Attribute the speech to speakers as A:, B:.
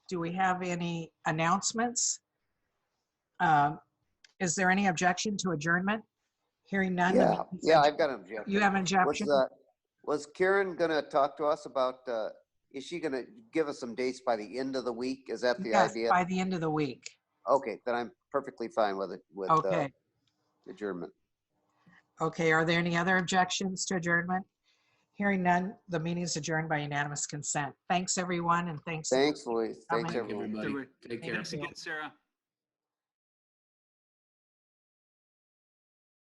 A: do we have any announcements? Um, Is there any objection to adjournment? Hearing none? the
B: Yeah,
A: meeting's
B: yeah,
A: adjourned.
B: I've got an objection.
A: You have an
B: Was,
A: objection?
B: uh, was Karen gonna talk to us about, uh, is she gonna give us some dates by the end of the week? Is that the
A: Yes,
B: idea?
A: By the end of the week.
B: Okay, then I'm perfectly fine with it, with uh,
A: Okay,
B: adjournment.
A: okay. Are there any other objections to adjournment? Hearing none, the meeting is adjourned by unanimous consent. Thanks, everyone, and thanks.
B: Thanks, Louise. Thanks,
A: Thank
C: Thank you,
B: everyone.
C: everybody. Take care.
D: Thanks again, Sarah.